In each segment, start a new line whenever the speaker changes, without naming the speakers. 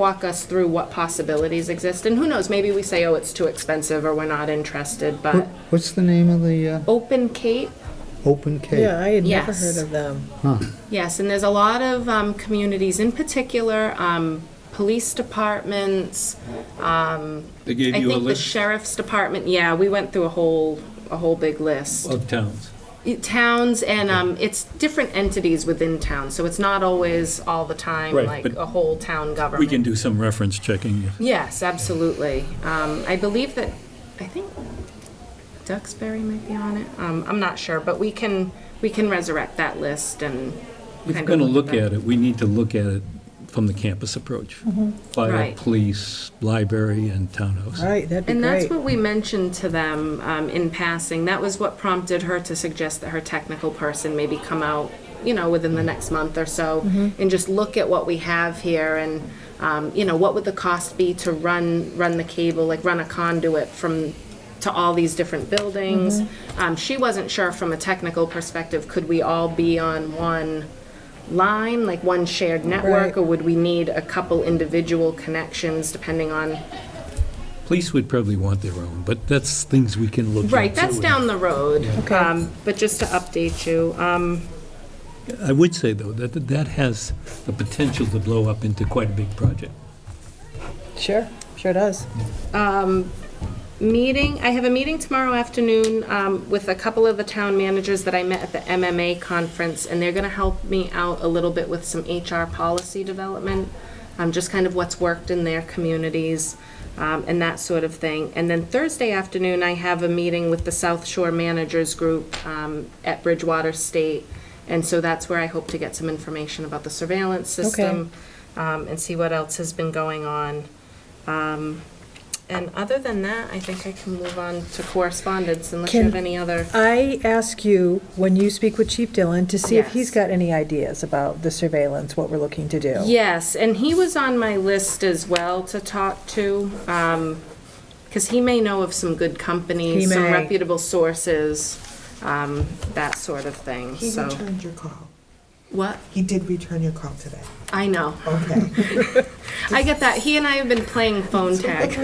walk us through what possibilities exist, and who knows, maybe we say, oh, it's too expensive, or we're not interested, but
What's the name of the uh,
Open Cape,
Open Cape?
Yeah, I had never
Yes.
heard of them.
yes, and there's a lot of um, communities, in particular, um, police departments,
They gave
I think
you a
the
list
sheriff's department, yeah, we went through a whole, a whole big list.
of towns.
Towns, and um, it's different entities within towns, so it's not always all the time,
Right,
like
but
a whole town government.
We can do some reference checking.
Yes, absolutely. Um, I believe that, I think Duxbury might be on it. Um, I'm not sure, but we can, we can resurrect that list and
If we're
kind
going to
of
look at it, we need to look at it from the campus approach. Fire,
Mm-hmm. Right.
police, library, and townhouse.
All right, that'd be
And that's
great.
what we mentioned to them um, in passing. That was what prompted her to suggest that her technical person maybe come out, you know, within the next month or so
Mm-hmm.
and just look at what we have here and, um, you know, what would the cost be to run, run the cable, like run a conduit from, to all these different buildings.
Mm-hmm.
Um, She wasn't sure from a technical perspective, could we all be on one line, like one shared network?
Right.
Or would we need a couple individual connections depending on
Police would probably want their own, but that's things we can look at.
Right, that's
too.
down the road.
Okay.
Um, But just to update you, um,
I would say, though, that that has the potential to blow up into quite a big project.
Sure, sure does.
meeting, I have a meeting tomorrow afternoon um, with a couple of the town managers that I met at the MMA conference, and they're going to help me out a little bit with some HR policy development, um, just kind of what's worked in their communities um, and that sort of thing. And then Thursday afternoon, I have a meeting with the South Shore Managers Group um, at Bridgewater State, and so that's where I hope to get some information about the surveillance system um, and see what else has been going on. Um, And other than that, I think I can move on to correspondence unless you
Can-
have any other.
I ask you, when you speak with Chief Dillon, to see if he's
Yes.
got any ideas about the surveillance, what we're looking to do.
Yes, and he was on my list as well to talk to, because he may know of some good
He
companies, some
may.
reputable sources, um, that sort of thing,
He
so.
returned your call.
What?
He did return your call today.
I know.
Okay.
I get that. He and I have been playing phone tag.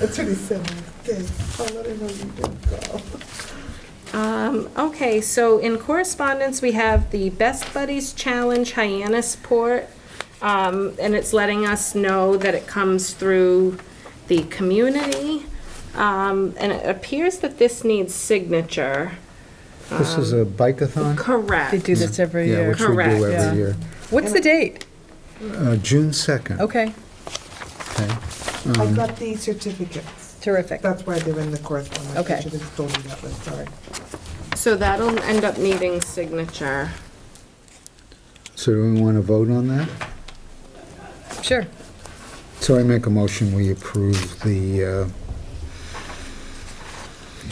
That's what he said. Okay, I'll let him know you did call.
Um, okay, so in correspondence, we have the Best Buddies Challenge Hyannisport. Um, and it's letting us know that it comes through the community. Um, and it appears that this needs signature.
This is a bike-a-thon?
They
Correct.
do this every
Yeah,
um, year.
which we do
Correct,
yeah.
every year.
What's the date?
Uh, June 2nd,
Okay,
okay. Mm-hmm.
I got these certificates.
terrific.
That's why they're in the correspondence.
Okay.
I should have told you that one, sorry.
So that'll end up needing signature.
So do we want to vote on that?
Sure.
So I make a motion, we approve the, uh,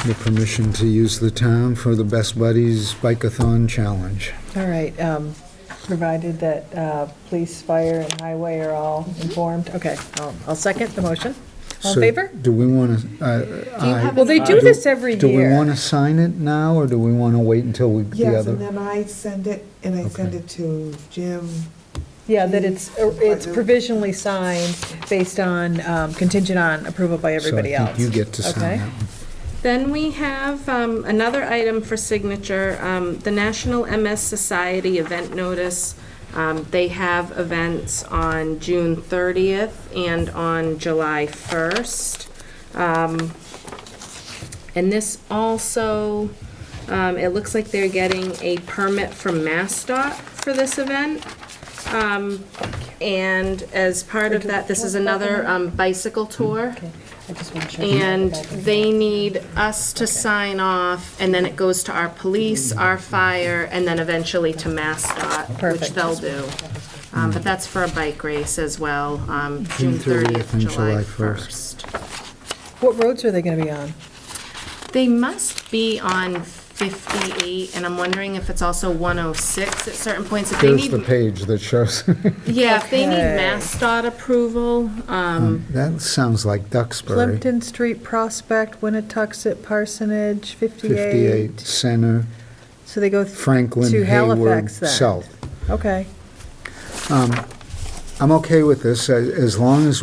the permission to use the town for the Best Buddies Bike-a-thon Challenge.
All right, um, provided that uh, police, fire, and highway are all
Mm-hmm.
informed. Okay, I'll- I'll second the motion. All in
So
favor?
Do we want to,
have
Well, they do this every
do we want
year.
to sign it now, or do we want to wait until we, the
Yes, and
other?
then I send it, and I send it to Jim.
Yeah, that it's, uh, it's provisionally signed based on, um, contingent on approval by everybody
So I
else.
think you get to
Okay.
sign that one.
Then we have um, another item for signature, um, the National MS Society event notice. Um, They have events on June 30th and on July 1st. Um, And this also, um, it looks like they're getting a permit from MassDOT for this event. Um, And as part of that, this is another um, bicycle tour.
Okay, I just wanna check.
And
Back and
they need us to sign off, and then it goes to our police, our fire, and then eventually to MassDOT, which
Perfect.
they'll do. Um, But that's for a bike race as well, um, June
30th
30th,
and
July
July
1st.
What roads are they gonna be on?
They must be on 58, and I'm wondering if it's also 106 at certain points. If they
There's the
need,
page that shows,
yeah, if they need
Okay.
MassDOT approval, um,
that sounds like Duxbury.
Plimpton Street, Prospect, Winnetoxet, Parsonage,
58
58.
Center,
So they go th-
Franklin,
to
Hayward,
Halifax then?
South.
Okay.
I'm okay with this, a- as long as we